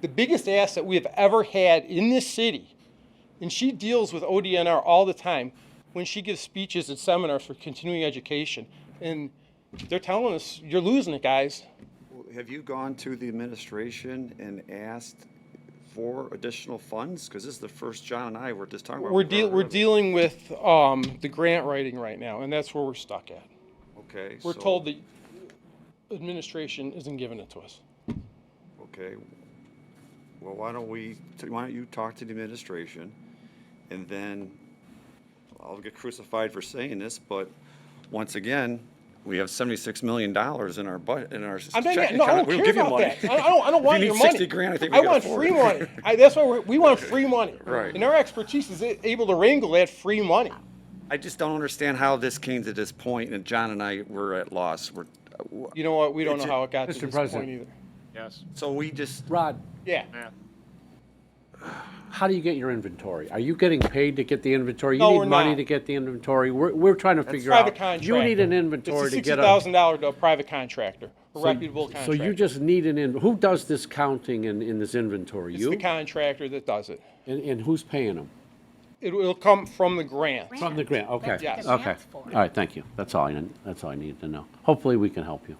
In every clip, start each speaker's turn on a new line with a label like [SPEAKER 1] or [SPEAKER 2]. [SPEAKER 1] the biggest asset we have ever had in this city, and she deals with ODNR all the time when she gives speeches and seminars for continuing education. And they're telling us, you're losing it, guys.
[SPEAKER 2] Have you gone to the administration and asked for additional funds? Because this is the first John and I were just talking about.
[SPEAKER 1] We're,
[SPEAKER 2] We've
[SPEAKER 1] deal
[SPEAKER 2] heard
[SPEAKER 1] we're
[SPEAKER 2] of it.
[SPEAKER 1] dealing with um, the grant writing right now, and that's where we're stuck at.
[SPEAKER 2] Okay.
[SPEAKER 1] We're
[SPEAKER 2] so-
[SPEAKER 1] told the administration isn't giving it to us.
[SPEAKER 2] Okay. Well, why don't we, why don't you talk to the administration? And then, I'll get crucified for saying this, but once again, we have seventy-six million dollars in our butt, in our
[SPEAKER 1] I'm not,
[SPEAKER 2] checking
[SPEAKER 1] no, I
[SPEAKER 2] account.
[SPEAKER 1] don't
[SPEAKER 2] We'll
[SPEAKER 1] care
[SPEAKER 2] give you
[SPEAKER 1] about
[SPEAKER 2] money.
[SPEAKER 1] that. I I don't, I don't
[SPEAKER 2] If
[SPEAKER 1] want
[SPEAKER 2] you
[SPEAKER 1] your
[SPEAKER 2] need
[SPEAKER 1] money.
[SPEAKER 2] 60 grand, I think we can
[SPEAKER 1] want
[SPEAKER 2] afford
[SPEAKER 1] free
[SPEAKER 2] it.
[SPEAKER 1] money. I, that's why we're, we want free money.
[SPEAKER 2] Right.
[SPEAKER 1] And our expertise is a- able to wrangle that free money.
[SPEAKER 2] I just don't understand how this came to this point, and John and I were at loss. We're, uh,
[SPEAKER 1] You know what? We don't know
[SPEAKER 2] Mr.
[SPEAKER 1] how it got to
[SPEAKER 3] Mr.
[SPEAKER 1] this point
[SPEAKER 3] President.
[SPEAKER 1] either.
[SPEAKER 4] Yes.
[SPEAKER 2] so we just,
[SPEAKER 3] Rod,
[SPEAKER 1] Yeah.
[SPEAKER 3] how do you get your inventory? Are you getting paid to get the inventory?
[SPEAKER 1] No,
[SPEAKER 3] You
[SPEAKER 1] we're
[SPEAKER 3] need money
[SPEAKER 1] not.
[SPEAKER 3] to get the inventory. We're, we're trying to figure
[SPEAKER 1] Private
[SPEAKER 3] out.
[SPEAKER 1] contractor.
[SPEAKER 3] You need an inventory
[SPEAKER 1] It's a
[SPEAKER 3] to get a.
[SPEAKER 1] sixty thousand dollar private contractor, a reputable
[SPEAKER 3] So
[SPEAKER 1] contractor.
[SPEAKER 3] you just need an, in- who does this counting in, in this inventory?
[SPEAKER 1] It's the
[SPEAKER 3] You?
[SPEAKER 1] contractor that does it.
[SPEAKER 3] And, and who's paying them?
[SPEAKER 1] It will come from the grant.
[SPEAKER 3] From the grant, okay.
[SPEAKER 1] That's what the
[SPEAKER 3] Okay.
[SPEAKER 5] grant's
[SPEAKER 3] All
[SPEAKER 5] for.
[SPEAKER 3] right, thank you. That's all I, need- that's all I needed to know. Hopefully, we can help you.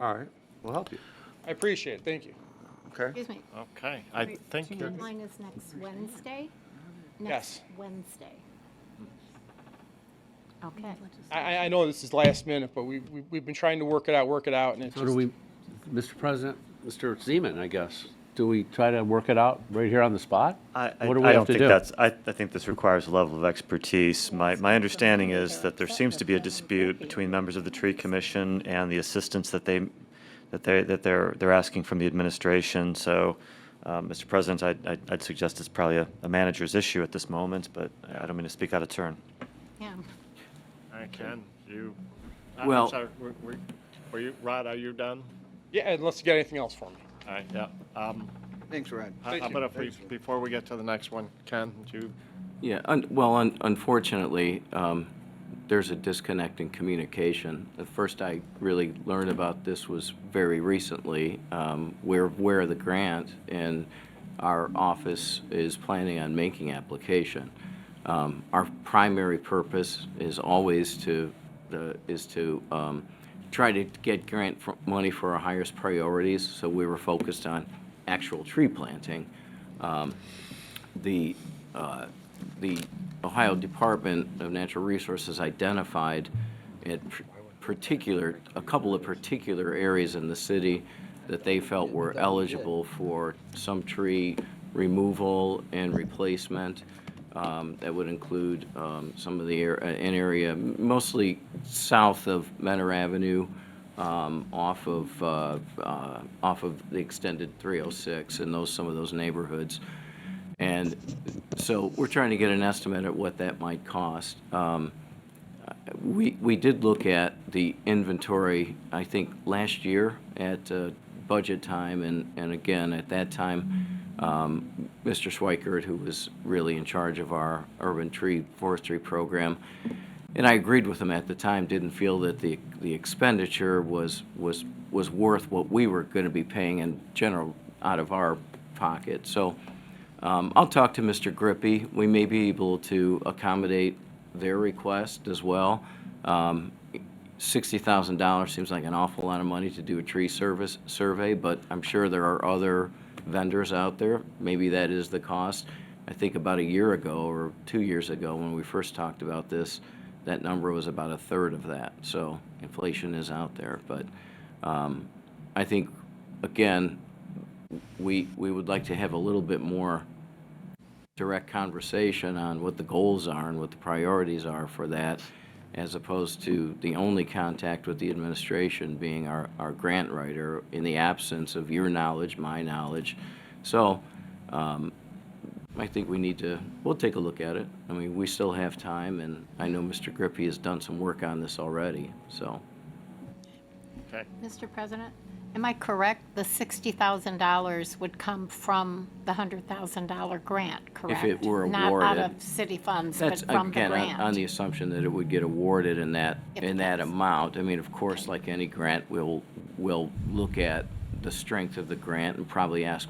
[SPEAKER 2] all right, we'll help you,
[SPEAKER 1] I appreciate it. Thank you.
[SPEAKER 2] okay?
[SPEAKER 5] Excuse me.
[SPEAKER 4] Okay, I think you're,
[SPEAKER 5] Deadline is next Wednesday?
[SPEAKER 1] Yes.
[SPEAKER 5] Next Wednesday. Okay.
[SPEAKER 1] I, I- I know this is last minute, but we, we- we've been trying to work it out, work it out, and it's
[SPEAKER 3] So do
[SPEAKER 1] just,
[SPEAKER 3] we, Mr. President, Mr. Zeman, I guess, do we try to work it out right here on the spot?
[SPEAKER 6] I, I,
[SPEAKER 3] What do we
[SPEAKER 6] I
[SPEAKER 3] have
[SPEAKER 6] don't
[SPEAKER 3] to
[SPEAKER 6] think
[SPEAKER 3] do?
[SPEAKER 6] that's, I, I think this requires a level of expertise. My, my understanding is that there seems to be a dispute between members of the tree commission and the assistance that they, that they, that they're, they're asking from the administration. So, um, Mr. President, I'd, I'd- I'd suggest it's probably a, a manager's issue at this moment, but I don't mean to speak out of turn.
[SPEAKER 5] Yeah.
[SPEAKER 4] I can, you, I- I'm
[SPEAKER 7] Well-
[SPEAKER 4] sorry, were- were, were you, Rod, are you done?
[SPEAKER 1] yeah, unless you got anything else for me.
[SPEAKER 4] All right, yeah. Um,
[SPEAKER 7] Thanks, Rod.
[SPEAKER 4] how
[SPEAKER 1] Thank
[SPEAKER 4] how
[SPEAKER 1] you.
[SPEAKER 4] about if we, before we get to the next one, Ken, do you,
[SPEAKER 7] Yeah, un- well, un- unfortunately, um, there's a disconnect in communication. The first I really learned about this was very recently. Um, We're aware of the grant, and our office is planning on making application. Um, Our primary purpose is always to, the- is to um, try to get grant fr- money for our highest priorities, so we were focused on actual tree planting. Um, the, uh, the Ohio Department of Natural Resources identified at pr- particular, a couple of particular areas in the city that they felt were eligible for some tree removal and replacement. Um, That would include um, some of the, air- uh, an area mostly south of Menor Avenue, um, off of, uh, uh, off of the extended 306 and those, some of those neighborhoods. And so we're trying to get an estimate at what that might cost. Um, We, we did look at the inventory, I think, last year at uh, budget time, and, and again, at that time, um, Mr. Schweikert, who was really in charge of our urban tree forestry program, and I agreed with him at the time, didn't feel that the, the expenditure was, was, was worth what we were going to be paying in general out of our pocket. So um, I'll talk to Mr. Grippy. We may be able to accommodate their request as well. Um, $60,000 seems like an awful lot of money to do a tree service, survey, but I'm sure there are other vendors out there. Maybe that is the cost. I think about a year ago or two years ago, when we first talked about this, that number was about a third of that. So inflation is out there, but um, I think, again, we, we would like to have a little bit more direct conversation on what the goals are and what the priorities are for that, as opposed to the only contact with the administration being our, our grant writer in the absence of your knowledge, my knowledge. So um, I think we need to, we'll take a look at it. I mean, we still have time, and I know Mr. Grippy has done some work on this already, so.
[SPEAKER 4] okay,
[SPEAKER 5] Mr. President, am I correct? The $60,000 would come from the $100,000 grant, correct?
[SPEAKER 7] were
[SPEAKER 5] Not out
[SPEAKER 7] awarded.
[SPEAKER 5] of city funds, but
[SPEAKER 7] That's,
[SPEAKER 5] from the
[SPEAKER 7] again, on-
[SPEAKER 5] grant.
[SPEAKER 7] on the assumption that it would get awarded in that,
[SPEAKER 5] If
[SPEAKER 7] in
[SPEAKER 5] it
[SPEAKER 7] that
[SPEAKER 5] does.
[SPEAKER 7] amount. I mean, of course, like any grant, we'll, we'll look at the strength of the grant and probably ask